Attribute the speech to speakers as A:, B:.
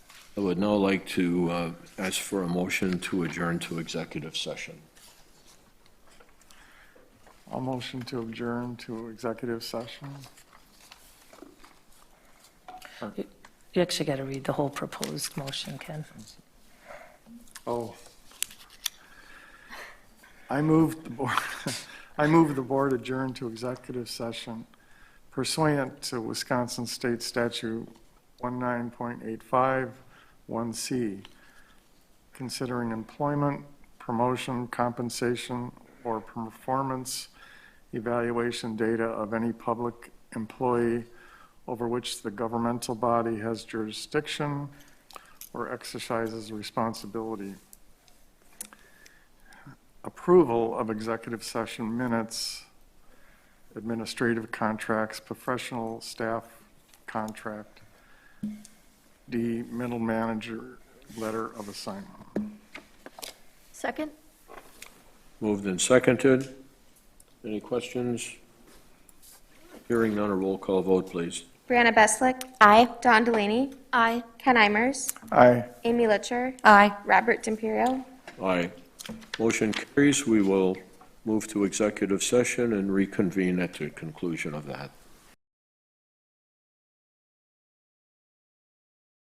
A: I would now like to uh, ask for a motion to adjourn to executive session.
B: I'll motion to adjourn to executive session.
C: You actually got to read the whole proposed motion, Ken.
B: Oh. I move the board, I move the board adjourn to executive session pursuant to Wisconsin State Statute 19.85, 1C, considering employment, promotion, compensation, or performance evaluation data of any public employee over which the governmental body has jurisdiction or exercises responsibility. Approval of executive session minutes, administrative contracts, professional staff contract, D, middle manager letter of assignment.
D: Second?
A: Moved and seconded. Any questions? Hearing none, a roll call vote, please.
E: Brianna Beslick. Aye. Don Delaney.
D: Aye.
E: Ken Imers.
B: Aye.
E: Amy Litcher.
D: Aye.
E: Robert D'Imperio.
A: Aye. Motion carries. We will move to executive session and reconvene at the conclusion of that.